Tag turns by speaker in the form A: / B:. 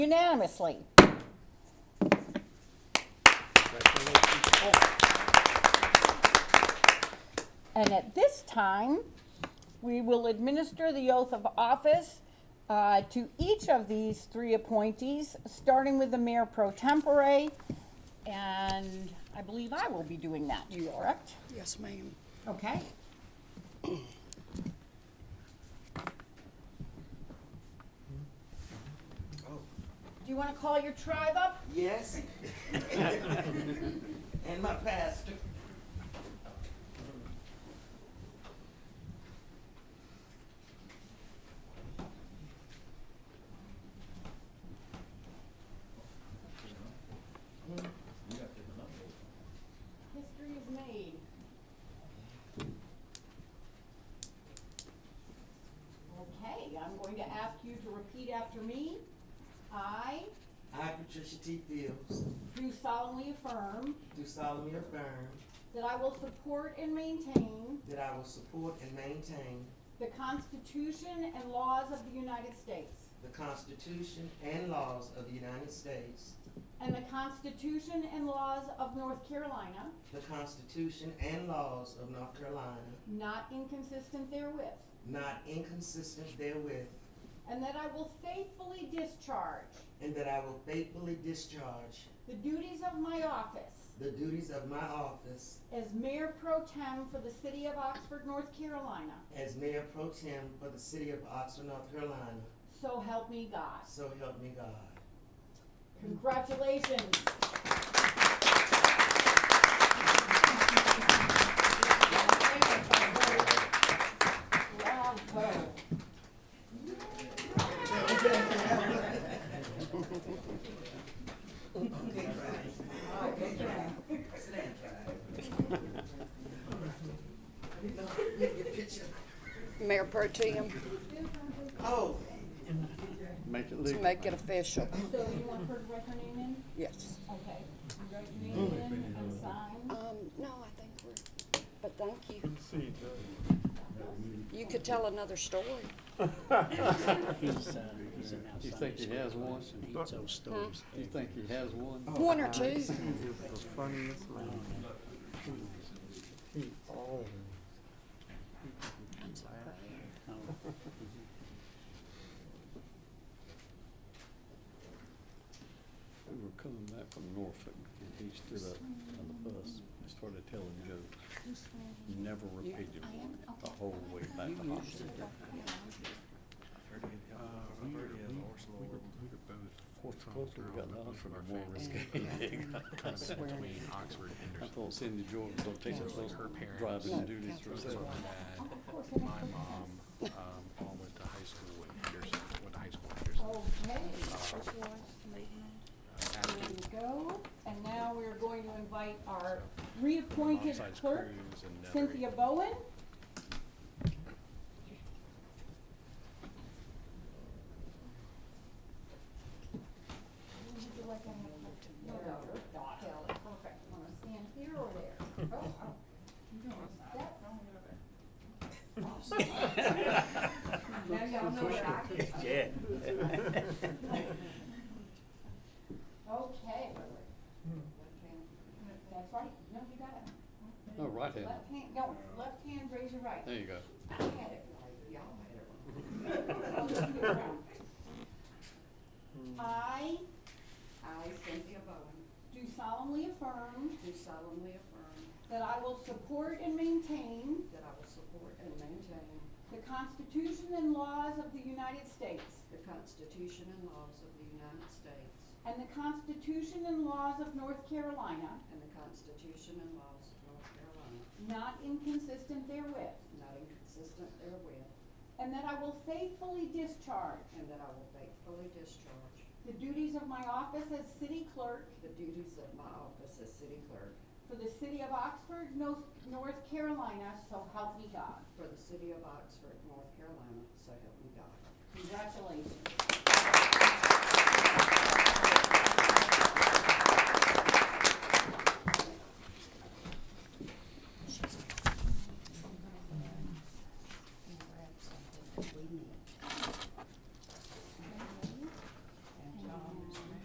A: unanimously. And at this time, we will administer the oath of office uh, to each of these three appointees, starting with the mayor pro tempore. And I believe I will be doing that, you are correct?
B: Yes, ma'am.
A: Okay.
C: Oh.
A: Do you want to call your tribe up?
C: Yes. And my pastor.
A: History is made. Okay, I'm going to ask you to repeat after me. I
C: I, Patricia T. Fields,
A: do solemnly affirm
C: do solemnly affirm
A: that I will support and maintain
C: that I will support and maintain
A: the Constitution and laws of the United States
C: the Constitution and laws of the United States,
A: and the Constitution and laws of North Carolina,
C: the Constitution and laws of North Carolina,
A: not inconsistent therewith,
C: not inconsistent therewith,
A: and that I will faithfully discharge
C: and that I will faithfully discharge
A: the duties of my office
C: the duties of my office
A: as Mayor Pro Tem for the City of Oxford, North Carolina.
C: as Mayor Pro Tem for the City of Oxford, North Carolina.
A: So help me God.
C: So help me God.
A: Congratulations. Bravo.
B: Mayor Pro Tem,
C: Oh,
D: Make it
B: to
D: legal.
B: make it official,
A: So you want her to write her name in?
B: yes.
A: Okay, you write your name in and sign.
B: Um, no, I think we're, but thank you. You could tell another story.
E: He's, uh, he's an
D: You
E: outside
D: think he has one?
E: person. He tells stories.
D: You think he has one?
F: Oh.
B: One or two.
E: Oh,
D: We were coming back from Norfolk and he stood up on the bus and started telling jokes. Never repeated one the whole way back to Oxford. Fortunately, we got out from a more risky.
G: between Oxford and
D: I thought Cindy Jordan was gonna take us those driving and do this for herself.
G: Dad. My mom, um, all went to high school in Henderson, went to high school in Henderson.
A: Okay,
G: Uh,
A: there
G: Adam
A: we go. And now we're going to invite our reappointed
G: Bobsides
A: clerk,
G: Cruz and Nethery.
A: Cynthia Bowen. Would you like to have a- no, no, your daughter. Perfect. Wanna stand here or there? Oh, oh. You don't wanna step. Now y'all know what I can do. Okay. That's right. No, you got it.
D: Oh, right hand.
A: Left hand, no, left hand, raise your right.
D: There you go.
A: I had it right, y'all had it wrong. I
F: I, Cynthia Bowen,
A: do solemnly affirm
F: do solemnly affirm
A: that I will support and maintain
F: that I will support and maintain
A: the Constitution and laws of the United States
F: the Constitution and laws of the United States
A: and the Constitution and laws of North Carolina,
F: and the Constitution and laws of North Carolina,
A: not inconsistent therewith,
F: not inconsistent therewith,
A: and that I will faithfully discharge
F: and that I will faithfully discharge
A: the duties of my office as city clerk
F: the duties of my office as city clerk
A: for the city of Oxford, North North Carolina, so help me God.
F: for the city of Oxford, North Carolina, so help me God.
A: Congratulations.